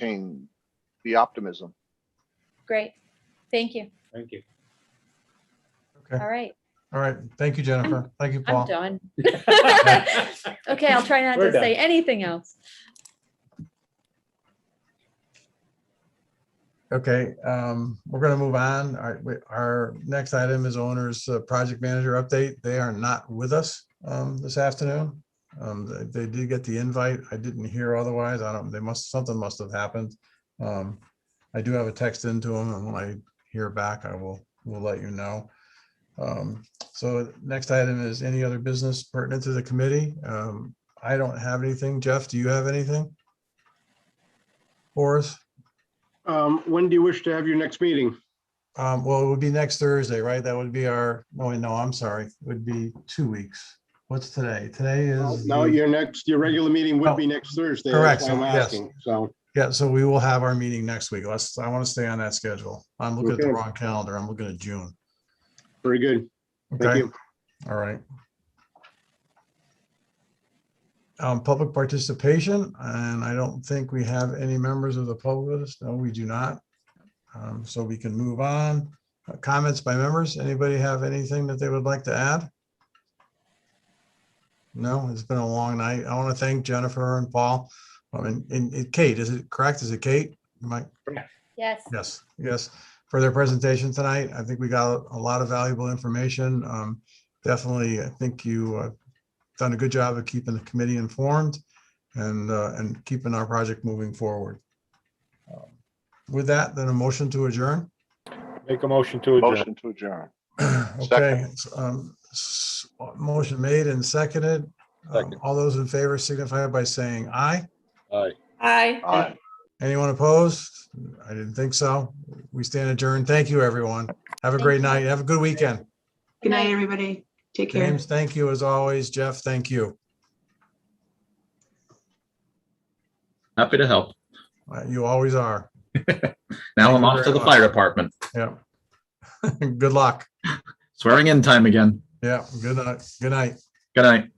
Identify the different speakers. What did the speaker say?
Speaker 1: maintain the optimism.
Speaker 2: Great. Thank you.
Speaker 3: Thank you.
Speaker 4: Okay,
Speaker 2: All right.
Speaker 4: all right. Thank you, Jennifer. Thank you,
Speaker 2: I'm
Speaker 4: Paul.
Speaker 2: done. Okay, I'll try not
Speaker 3: We're
Speaker 2: to say anything else.
Speaker 4: Okay, um, we're gonna move on. All right, we- our next item is owner's uh, project manager update. They are not with us um, this afternoon. Um, they- They did get the invite. I didn't hear otherwise. I don't, they must, something must have happened. Um, I do have a text into them and when I hear back, I will, will let you know. Um, So next item is any other business pertinent to the committee? Um, I don't have anything. Jeff, do you have anything? Horace?
Speaker 5: Um, when do you wish to have your next meeting?
Speaker 4: Um, well, it would be next Thursday, right? That would be our, no, wait, no, I'm sorry. It would be two weeks. What's today? Today is,
Speaker 5: No,
Speaker 4: the- Oh,
Speaker 5: your next, your regular meeting would be next Thursday. that's
Speaker 4: Correct,
Speaker 5: why I'm
Speaker 4: yes.
Speaker 5: asking, So,
Speaker 4: yeah, so we will have our meeting next week. Let's, I want to stay on that schedule. I'm looking at the
Speaker 5: Okay.
Speaker 4: wrong calendar. I'm looking at June.
Speaker 5: very good. Thank
Speaker 4: Okay,
Speaker 5: you.
Speaker 4: all right. Um, public participation, and I don't think we have any members of the public. No, we do not. Um, so we can move on. Uh, Comments by members? Anybody have anything that they would like to add? No, it's been a long night. I want to thank Jennifer and Paul. I mean, and and Kate, is it correct? Is it Kate? Mike?
Speaker 2: Yes.
Speaker 4: Yes, yes, for their presentation tonight. I think we got a lot of valuable information. Um, Definitely, I think you uh, done a good job of keeping the committee informed and, uh, and keeping our project moving forward. Um, With that, then a motion to adjourn.
Speaker 3: Make a motion to adjourn.
Speaker 1: Motion to adjourn.
Speaker 4: Okay, it's, um, s- motion made and seconded. Um,
Speaker 3: Second.
Speaker 4: All those in favor signify by saying aye.
Speaker 3: Aye.
Speaker 6: Aye.
Speaker 1: Aye.
Speaker 4: Anyone opposed? I didn't think so. We stand adjourned. Thank you, everyone. Have a
Speaker 2: Thank
Speaker 4: great
Speaker 2: you.
Speaker 4: night. Have a good weekend.
Speaker 6: Good night, everybody. Take care.
Speaker 4: James, thank you as always. Jeff, thank you.
Speaker 7: Happy to help.
Speaker 4: Uh, You always are.
Speaker 7: Now
Speaker 4: Thank
Speaker 7: I'm
Speaker 4: you
Speaker 7: off
Speaker 4: very
Speaker 7: to the
Speaker 4: much.
Speaker 7: fire department.
Speaker 4: Yeah. Good luck.
Speaker 7: Swearing in time again.
Speaker 4: Yeah, good night. Good night.
Speaker 7: Good night.